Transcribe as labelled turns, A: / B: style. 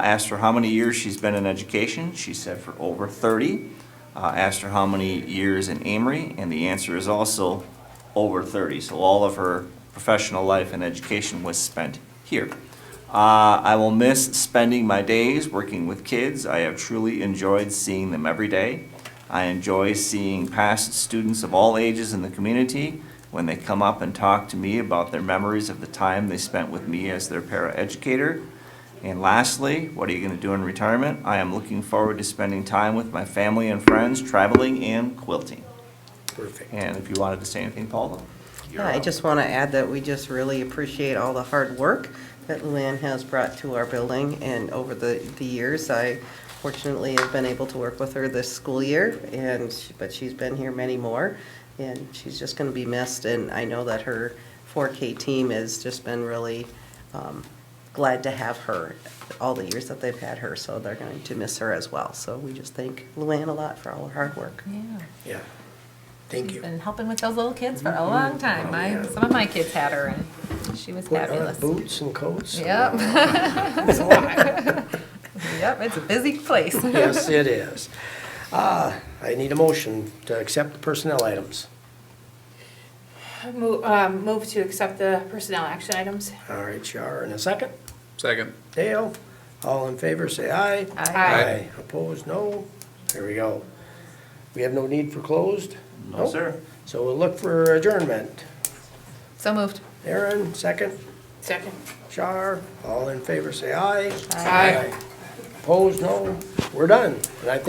A: I asked her how many years she's been in education. She said for over 30. Uh, asked her how many years in Amory, and the answer is also over 30. So all of her professional life and education was spent here. Uh, I will miss spending my days working with kids. I have truly enjoyed seeing them every day. I enjoy seeing past students of all ages in the community when they come up and talk to me about their memories of the time they spent with me as their paraeducator. And lastly, what are you going to do in retirement? I am looking forward to spending time with my family and friends, traveling and quilting.
B: Perfect.
A: And if you wanted to say anything, Paula?
C: Yeah, I just want to add that we just really appreciate all the hard work that Luann has brought to our building, and over the, the years, I fortunately have been able to work with her this school year, and, she- but she's been here many more, and she's just going to be missed, and I know that her 4K team has just been really um, glad to have her, all the years that they've had her, so they're going to miss her as well. So we just thank Luann a lot for all her hard work.
D: Yeah,
B: Yeah. Thank
D: she's
B: you. Mm-hmm. Oh,
D: been helping with those little kids for a long time. My,
B: Yeah.
D: some of my kids had her and she was
B: Put on
D: fabulous.
B: boots and coats. and-
D: Yep,
B: It's a lot.
D: yep, it's a busy place.
B: Yes, it is. Uh, I need a motion to accept the personnel items.
E: Move, um, move to accept the personnel action items.
B: All right, Char, in a second.
F: Second.
B: Dale, all in favor, say aye.
E: Aye.
B: Opposed, no. There we go. We have no need for closed? Nope. So we'll look for adjournment.
D: So moved.
B: Aaron, second.
E: Second.
B: Char, all in favor, say aye.
E: Aye.
B: Opposed, no. We're done. And I think